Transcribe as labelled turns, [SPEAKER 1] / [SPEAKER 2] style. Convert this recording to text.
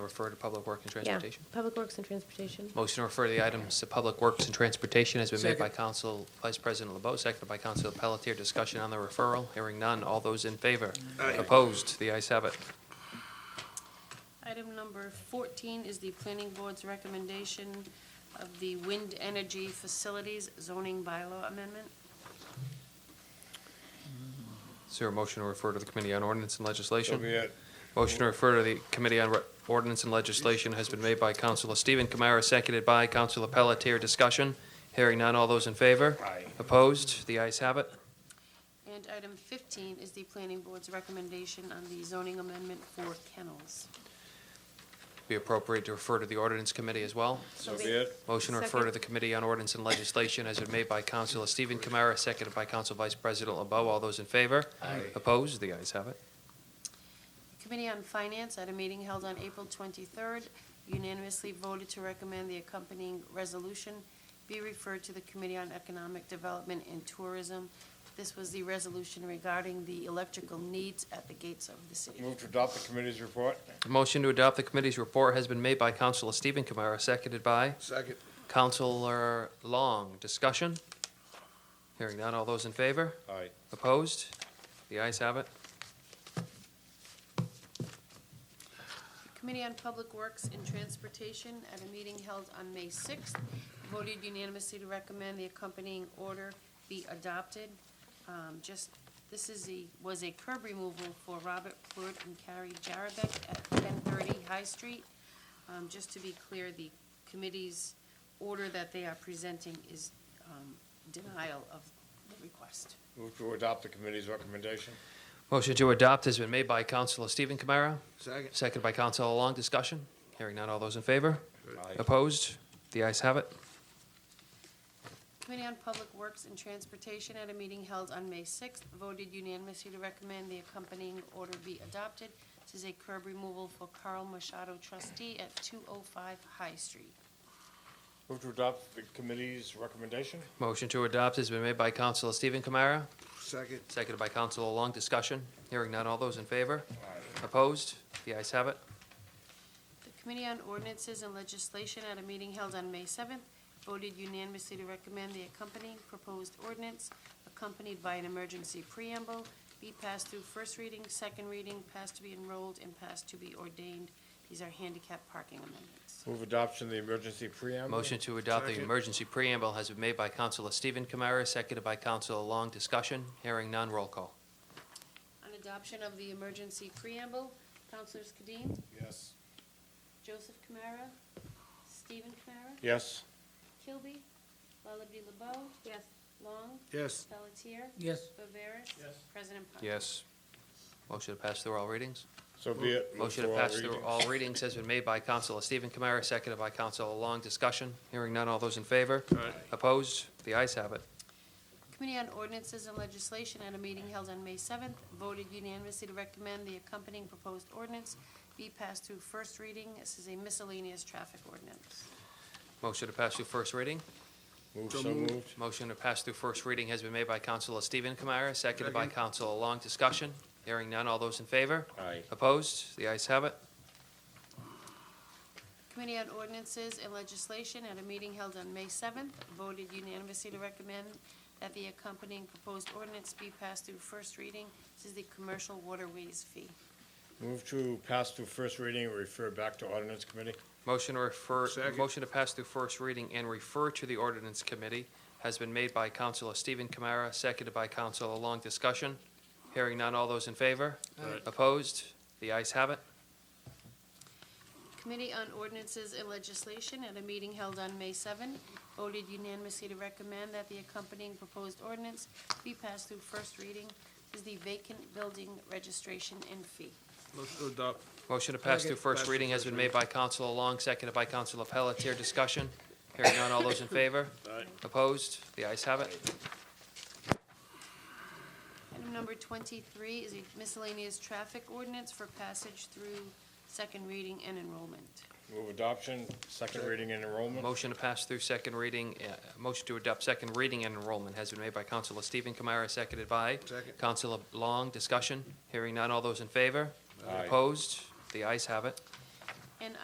[SPEAKER 1] refer to Public Works and
[SPEAKER 2] Yeah,
[SPEAKER 1] Transportation?
[SPEAKER 2] Public Works and Transportation.
[SPEAKER 1] Motion to refer the items to Public Works and Transportation has been made by
[SPEAKER 3] Second.
[SPEAKER 1] Council Vice President LeBeau, seconded by Council Pelletier. Discussion on the referral, hearing none. All those in favor?
[SPEAKER 3] Aye.
[SPEAKER 1] Opposed? The ayes have it.
[SPEAKER 4] Item number 14 is the planning board's recommendation of the wind energy facilities zoning bylaw amendment.
[SPEAKER 1] Is there a motion to refer to the Committee on Ordinance and Legislation?
[SPEAKER 5] Don't be it.
[SPEAKER 1] Motion to refer to the Committee on Re- Ordinance and Legislation has been made by Councilor Stephen Kamara, seconded by Councilor Pelletier. Discussion, hearing none. All those in favor?
[SPEAKER 5] Aye.
[SPEAKER 1] Opposed? The ayes have it.
[SPEAKER 4] And item 15 is the planning board's recommendation on the zoning amendment for kennels.
[SPEAKER 1] Be appropriate to refer to the Ordinance Committee as well.
[SPEAKER 5] So be it.
[SPEAKER 1] Motion to refer to
[SPEAKER 2] Second.
[SPEAKER 1] the Committee on Ordinance and Legislation has been made by Councilor Stephen Kamara, seconded by Council Vice President LeBeau. All those in favor?
[SPEAKER 3] Aye.
[SPEAKER 1] Opposed? The ayes have it.
[SPEAKER 4] Committee on Finance, at a meeting held on April 23rd, unanimously voted to recommend the accompanying resolution be referred to the Committee on Economic Development and Tourism. This was the resolution regarding the electrical needs at the gates of the city.
[SPEAKER 5] Move to adopt the committee's report.
[SPEAKER 1] The motion to adopt the committee's report has been made by Councilor Stephen Kamara, seconded by
[SPEAKER 3] Second.
[SPEAKER 1] Councilor Long. Discussion? Hearing none. All those in favor?
[SPEAKER 5] Aye.
[SPEAKER 1] Opposed? The ayes have it.
[SPEAKER 4] Committee on Public Works and Transportation, at a meeting held on May 6th, voted unanimously to recommend the accompanying order be adopted. Um, Just, this is a, was a curb removal for Robert Plord and Carrie Jarabek at 1030 High Street. Um, Just to be clear, the committee's order that they are presenting is um, denial of the request.
[SPEAKER 5] Move to adopt the committee's recommendation.
[SPEAKER 1] Motion to adopt has been made by Councilor Stephen Kamara,
[SPEAKER 3] Second.
[SPEAKER 1] seconded by Councilor Long. Discussion? Hearing none. All those in favor?
[SPEAKER 5] Aye.
[SPEAKER 1] Opposed? The ayes have it.
[SPEAKER 4] Committee on Public Works and Transportation, at a meeting held on May 6th, voted unanimously to recommend the accompanying order be adopted. This is a curb removal for Carl Machado trustee at 205 High Street.
[SPEAKER 5] Move to adopt the committee's recommendation.
[SPEAKER 1] Motion to adopt has been made by Councilor Stephen Kamara,
[SPEAKER 3] Second.
[SPEAKER 1] seconded by Councilor Long. Discussion? Hearing none. All those in favor?
[SPEAKER 5] Aye.
[SPEAKER 1] Opposed? The ayes have it.
[SPEAKER 4] The Committee on Ordinances and Legislation, at a meeting held on May 7th, voted unanimously to recommend the accompanying proposed ordinance, accompanied by an emergency preamble, be passed through first reading, second reading, passed to be enrolled, and passed to be ordained. These are handicap parking amendments.
[SPEAKER 5] Move adoption of the emergency preamble.
[SPEAKER 1] Motion to adopt the
[SPEAKER 3] Second.
[SPEAKER 1] emergency preamble has been made by Councilor Stephen Kamara, seconded by Councilor Long. Discussion? Hearing none. Roll call.
[SPEAKER 4] On adoption of the emergency preamble, Councilors Kadim,
[SPEAKER 5] Yes.
[SPEAKER 4] Joseph Kamara, Stephen Kamara,
[SPEAKER 5] Yes.
[SPEAKER 4] Kilby, Lullaby LeBeau. Yes. Long,
[SPEAKER 3] Yes.
[SPEAKER 4] Pelletier,
[SPEAKER 3] Yes.
[SPEAKER 4] Viveras.
[SPEAKER 5] Yes.
[SPEAKER 4] President Park.
[SPEAKER 1] Yes. Motion to pass through all readings?
[SPEAKER 5] So be it. Move
[SPEAKER 1] Motion to
[SPEAKER 5] all
[SPEAKER 1] pass through
[SPEAKER 5] readings.
[SPEAKER 1] all readings has been made by Councilor Stephen Kamara, seconded by Councilor Long. Discussion? Hearing none. All those in favor? Opposed? The ayes have it.
[SPEAKER 4] Committee on Ordinances and Legislation at a meeting held on May 7th voted unanimously to recommend the accompanying proposed ordinance be passed through first reading. This is a miscellaneous traffic ordinance.
[SPEAKER 1] Motion to pass through first reading?
[SPEAKER 5] Move
[SPEAKER 3] So
[SPEAKER 5] so
[SPEAKER 3] moved.
[SPEAKER 5] moved.
[SPEAKER 1] Motion to pass through first reading has been made by Councilor Stephen Kamara, seconded by Councilor Long. Discussion? Hearing none. All those in favor?
[SPEAKER 5] Aye.
[SPEAKER 1] Opposed? The ayes have it.
[SPEAKER 4] Committee on Ordinances and Legislation at a meeting held on May 7th voted unanimously to recommend that the accompanying proposed ordinance be passed through first reading. This is the commercial waterways fee.
[SPEAKER 5] Move to pass through first reading and refer back to ordinance committee.
[SPEAKER 1] Motion to refer,
[SPEAKER 3] Second.
[SPEAKER 1] motion to pass through first reading and refer to the ordinance committee has been made by Councilor Stephen Kamara, seconded by Councilor Long. Discussion? Hearing none. All those in favor? Opposed? The ayes have it.
[SPEAKER 4] Committee on Ordinances and Legislation at a meeting held on May 7th voted unanimously to recommend that the accompanying proposed ordinance be passed through first reading. This is the vacant building registration and fee.
[SPEAKER 3] Motion to adopt.
[SPEAKER 1] Motion to pass through
[SPEAKER 3] Second. Pass
[SPEAKER 1] first
[SPEAKER 3] through
[SPEAKER 1] reading has
[SPEAKER 3] first
[SPEAKER 1] been made by Councilor Long, seconded by Councilor Pelletier. Discussion? Hearing none. All those in favor?
[SPEAKER 5] Aye.
[SPEAKER 1] Opposed? The ayes have it.
[SPEAKER 4] Item number twenty-three is a miscellaneous traffic ordinance for passage through second reading and enrollment.
[SPEAKER 5] Move adoption, second reading and enrollment.
[SPEAKER 1] Motion to pass through second reading, uh, motion to adopt second reading and enrollment has been made by Councilor Stephen Kamara, seconded by
[SPEAKER 3] Second.
[SPEAKER 1] Councilor Long. Discussion? Hearing none. All those in favor?
[SPEAKER 5] Aye.
[SPEAKER 1] Opposed? The ayes have it.